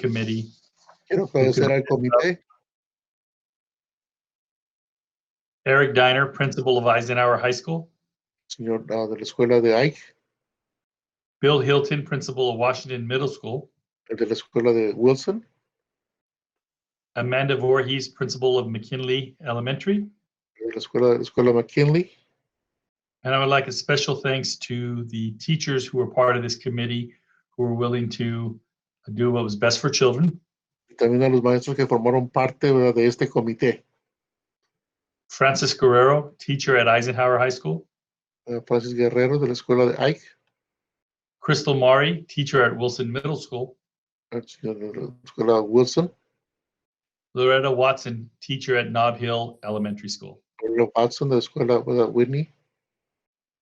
committee. Quiero agradecer al comité, Eric Diner, principal of Eisenhower High School. señor ah, de la escuela de Ike, Bill Hilton, principal of Washington Middle School. el de la escuela de Wilson, Amanda Voorhees, principal of McKinley Elementary. el de la escuela, la escuela McKinley. And I would like a special thanks to the teachers who were part of this committee who were willing to do what was best for children. Y también a los maestros que formaron parte ¿verdad? de este comité. Francis Guerrero, teacher at Eisenhower High School. Eh, Francis Guerrero de la escuela de Ike, Crystal Mari, teacher at Wilson Middle School. el señor de la escuela Wilson, Loretta Watson, teacher at Nob Hill Elementary School. Lorena Watson de la escuela ¿verdad? Whitney,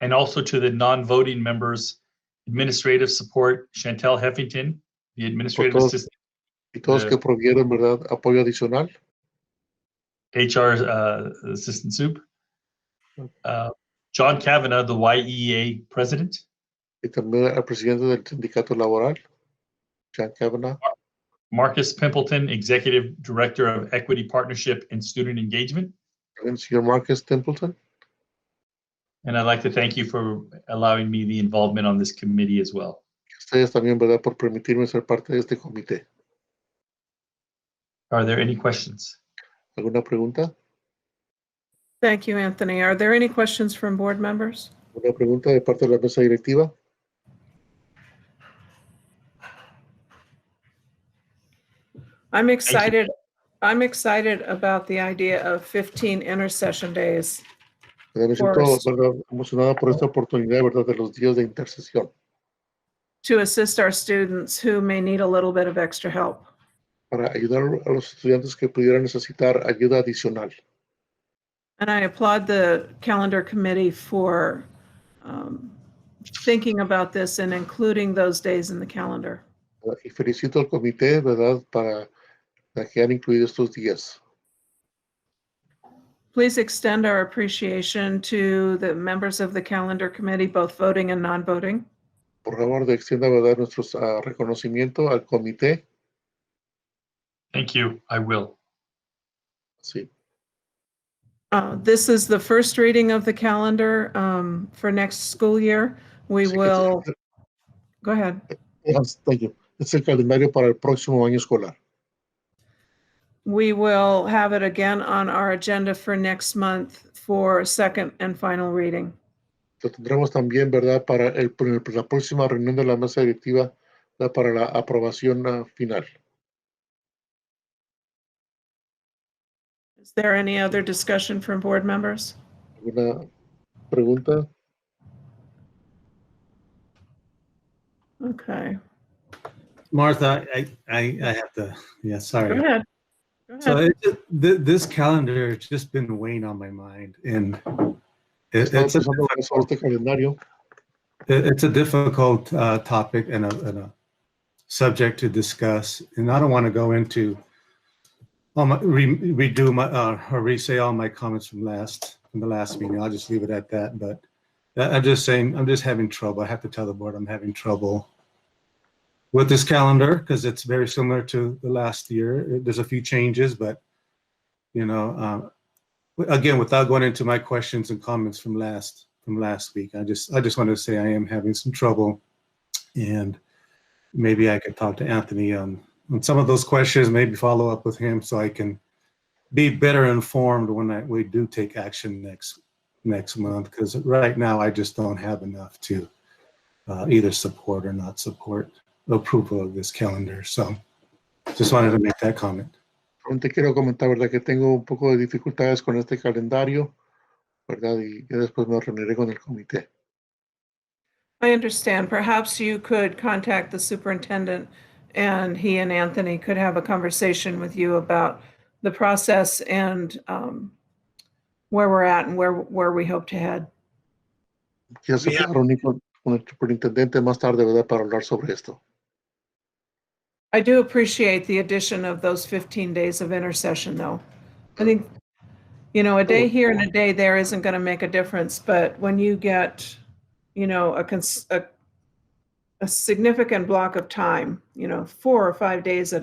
and also to the non-voting members, administrative support, Chantel Heffington, the administrative todos. assistant, y todos Eh. que provieron ¿verdad? apoyo adicional. HR uh, assistant soup. Uh, John Kavanaugh, the YEA president, Y también al presidente del sindicato laboral, Sean Kavanaugh, Marcus Pimpleton, executive director of equity partnership and student engagement. también el señor Marcus Templeton. And I'd like to thank you for allowing me the involvement on this committee as well. Ustedes también, ¿verdad?, por permitirme ser parte de este comité. Are there any questions? ¿Alguna pregunta? Thank you, Anthony. Are there any questions from board members? ¿Alguna pregunta de parte de la mesa directiva? I'm excited, I'm excited about the idea of 15 intercession days. ¿Verdad? Me siento Forrest. ¿verdad? emocionada por esta oportunidad, ¿verdad?, de los días de intercesión to assist our students who may need a little bit of extra help. para ayudar a los estudiantes que pudieran necesitar ayuda adicional. And I applaud the calendar committee for um, thinking about this and including those days in the calendar. ¿verdad? Y felicito al comité, ¿verdad?, para para que han incluido estos días. Please extend our appreciation to the members of the calendar committee, both voting and non-voting. Por favor, de extienda, ¿verdad?, nuestro ah, reconocimiento al comité. Thank you. I will. Sí, Uh, This is the first reading of the calendar um, for next school year. We Así que- will, go ahead. Yes, thank you. Es el calendario para el próximo año escolar. We will have it again on our agenda for next month for second and final reading. Lo tendremos también, ¿verdad?, para el, pr- la próxima reunión de la mesa directiva, ¿verdad? para la aprobación ah, final. Is there any other discussion from board members? ¿Alguna pregunta? Okay, Martha, I, I, I have to, yeah, go sorry. ahead. Go So ahead. it, th- this calendar has just been weighing on my mind and it, Estaba it's, a, pensando sobre este calendario. it- it's a difficult uh, topic and a, and a subject to discuss. And I don't want to go into, all my, re, redo my, uh, or re-say all my comments from last, from the last meeting. I'll just leave it at that. But I- I'm just saying, I'm just having trouble. I have to tell the board I'm having trouble with this calendar because it's very similar to the last year. It- There's a few changes, but you know, um, w- again, without going into my questions and comments from last from last week, I just I just want to say I am having some trouble, and maybe I could talk to Anthony on on some of those questions. Maybe follow up with him so I can be better informed when I, we do take action next next month. Because right now I just don't have enough to uh, either support or not support approval of this calendar. So just wanted to make that comment. Aún Te quiero comentar, ¿verdad?, que tengo un poco de dificultades con este calendario, ¿verdad? Y ya después me reuniré con el comité. I understand. Perhaps you could contact the superintendent and he and Anthony could have a conversation with you about the process and um, where we're at and where, where we hope to head. Quizás se Bien. pueda reunir con, con el superintendente más tarde, ¿verdad?, para hablar sobre esto. I do appreciate the addition of those 15 days of intercession, though. I think, you know, a day here and a day there isn't going to make a difference, but when you get, you know, a, cons- a, a significant block of time, you know, four or five days at